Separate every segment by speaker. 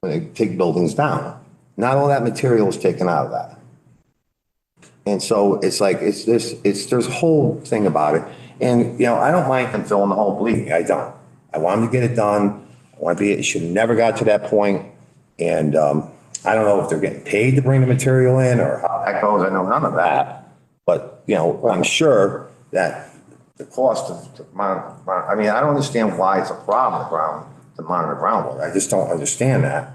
Speaker 1: when they take buildings down. Not all that material is taken out of that. And so it's like, it's this, it's, there's a whole thing about it. And, you know, I don't mind them filling the hole, believe me, I don't. I want them to get it done. I want to be, it should have never got to that point. And, um, I don't know if they're getting paid to bring the material in or how that goes. I know none of that. But, you know, I'm sure that the cost of, the mon- mon- I mean, I don't understand why it's a problem to ground, to monitor groundwater. I just don't understand that.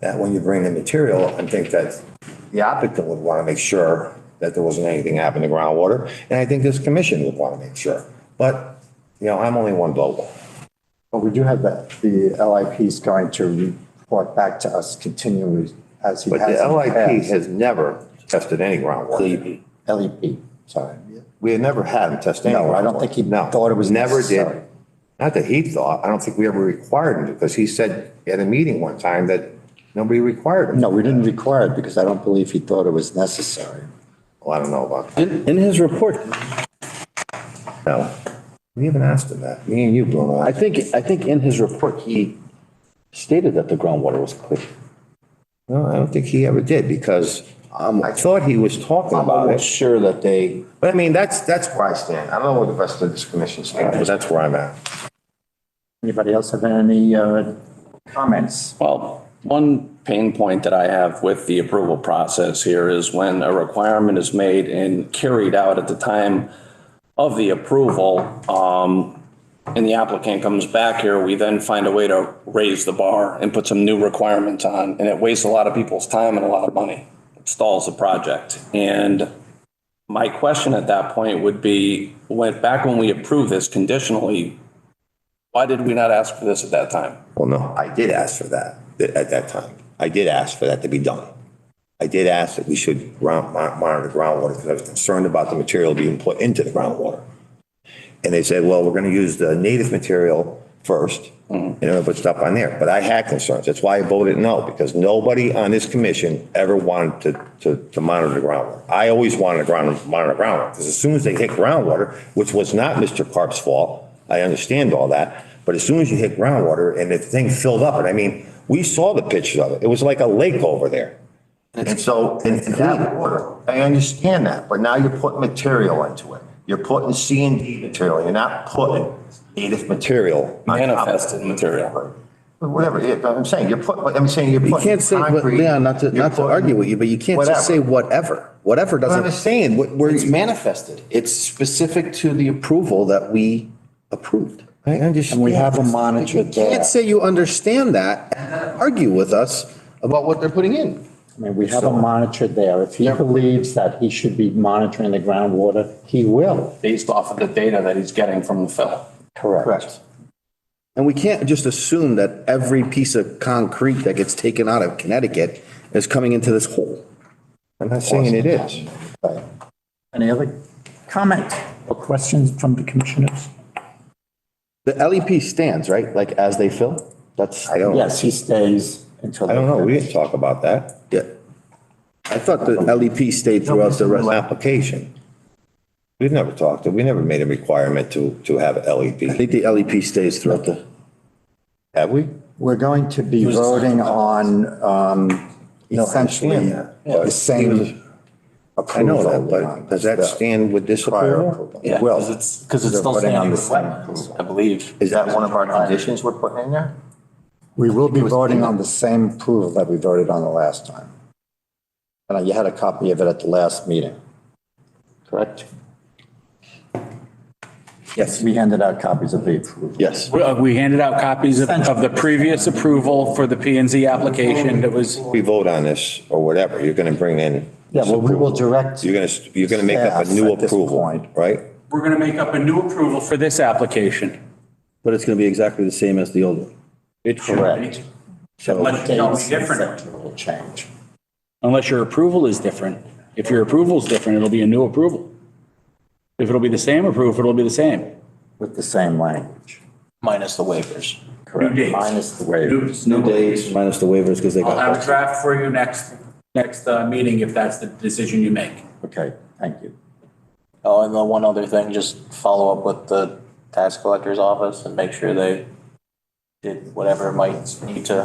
Speaker 1: That when you bring in material, I think that the applicant would want to make sure that there wasn't anything happening to groundwater. And I think this commission would want to make sure. But, you know, I'm only one vote.
Speaker 2: But we do have that, the LIP is going to report back to us continually as he
Speaker 1: But
Speaker 2: has. in
Speaker 1: the
Speaker 2: the
Speaker 1: LIP
Speaker 2: past.
Speaker 1: has never tested any groundwater.
Speaker 2: LEP, E sorry.
Speaker 1: We had never had him test any.
Speaker 2: No, I don't think he
Speaker 1: groundwater. No.
Speaker 2: thought it was
Speaker 1: Never did.
Speaker 2: necessary.
Speaker 1: Not that he thought, I don't think we ever required him to, because he said at a meeting one time that nobody required him.
Speaker 2: No, we didn't require it because I don't believe he thought it was necessary.
Speaker 1: Well, I don't know about that.
Speaker 3: In, in his report,
Speaker 1: No. We haven't asked him that. Me and you, Bruno.
Speaker 3: I think, I think in his report, he stated that the groundwater was clear.
Speaker 1: No, I don't think he ever did because um, I thought he was talking
Speaker 3: I'm
Speaker 1: about
Speaker 3: almost
Speaker 1: it.
Speaker 3: sure that they,
Speaker 1: But I mean, that's, that's where I stand. I don't know where the rest of this commission stands, but that's where I'm at.
Speaker 2: Anybody else have any uh, comments?
Speaker 4: Well, one pain point that I have with the approval process here is when a requirement is made and carried out at the time of the approval, um, and the applicant comes back here, we then find a way to raise the bar and put some new requirements on, and it wastes a lot of people's time and a lot of money. It stalls the project. And my question at that point would be, went back when we approved this conditionally, why did we not ask for this at that time?
Speaker 1: Well, no, I did ask for that th- at that time. I did ask for that to be done. I did ask that we should ground, mon- monitor groundwater because I was concerned about the material being put into the groundwater. And they said, well, we're going to use the native material first and then we'll put stuff on there. But I had concerns. That's why I voted no, because nobody on this commission ever wanted to, to, to monitor the groundwater. I always wanted to ground, monitor groundwater because as soon as they hit groundwater, which was not Mr. Carp's fault, I understand all that. But as soon as you hit groundwater and the thing filled up, and I mean, we saw the pictures of it. It was like a lake over there. And so, and and that water, I understand that, but now you're putting material into it. You're putting C and D material. You're not putting native material. on top of it.
Speaker 4: Manifested material.
Speaker 1: Whatever, it- I'm saying, you're putting, I'm saying you're
Speaker 5: You
Speaker 1: putting.
Speaker 5: can't say, but
Speaker 1: concrete,
Speaker 5: Leon, not to,
Speaker 1: you're
Speaker 5: not to
Speaker 1: putting-
Speaker 5: argue with you, but you can't just say
Speaker 1: Whatever.
Speaker 5: whatever. Whatever
Speaker 1: But I'm
Speaker 5: doesn't,
Speaker 1: just saying, what- where.
Speaker 5: it's
Speaker 1: you-
Speaker 5: manifested. It's specific to the approval that we approved.
Speaker 1: I understand.
Speaker 2: And we have a monitor
Speaker 5: You
Speaker 2: there.
Speaker 5: can't say you understand that and then argue with us about what they're putting in.
Speaker 2: I mean, we have a monitor there. If he believes that he should be monitoring the groundwater, he will.
Speaker 4: based off of the data that he's getting from the fill.
Speaker 2: Correct.
Speaker 5: And we can't just assume that every piece of concrete that gets taken out of Connecticut is coming into this hole.
Speaker 1: I'm not saying it is.
Speaker 2: Any other comment?
Speaker 6: Or questions from the commissioners?
Speaker 5: The LEP stands, right? Like as they fill? That's.
Speaker 1: I don't,
Speaker 2: Yes, he stays until.
Speaker 1: I don't know. We didn't talk about that.
Speaker 5: Yeah. I thought the LEP stayed throughout the rest.
Speaker 1: Application. We've never talked, we never made a requirement to, to have
Speaker 5: I
Speaker 1: LEP,
Speaker 5: think the LEP stays throughout the.
Speaker 1: have we?
Speaker 2: We're going to be voting on um, essentially
Speaker 1: understand that,
Speaker 2: the same
Speaker 1: I know
Speaker 2: approval.
Speaker 1: that, but does that stand with this approval?
Speaker 4: Yeah,
Speaker 1: Well,
Speaker 4: because it's, because it's still saying on the wetlands, I believe.
Speaker 1: Is that one of our conditions we're putting in there?
Speaker 2: We will be voting on the same approval that we voted on the last time. And you had a copy of it at the last meeting. Correct? Yes, we handed out copies of the approval.
Speaker 5: Yes.
Speaker 6: We- uh, We handed out copies of, of the previous approval for the P and Z application that was,
Speaker 1: We vote on this or whatever, you're going to bring in.
Speaker 2: Yeah, well, we will direct.
Speaker 1: You're going to, you're going to make up a new
Speaker 2: Staff at this
Speaker 1: approval,
Speaker 2: point.
Speaker 1: right?
Speaker 6: we're going to make up a new approval for this application.
Speaker 5: But it's going to be exactly the same as the old one.
Speaker 6: It should be,
Speaker 2: Correct. So
Speaker 6: Unless you don't be different.
Speaker 2: Will change.
Speaker 6: unless your approval is different. If your approval is different, it'll be a new approval. If it'll be the same approval, it'll be the same.
Speaker 2: With the same language.
Speaker 4: Minus the waivers.
Speaker 6: New dates.
Speaker 2: Minus the waiver.
Speaker 6: New days.
Speaker 5: Minus the waivers because they
Speaker 6: I'll have a
Speaker 5: got.
Speaker 6: draft for you next, next uh, meeting if that's the decision you make.
Speaker 2: Okay, thank you.
Speaker 7: Oh, and the one other thing, just follow up with the tax collector's office and make sure they did whatever might need to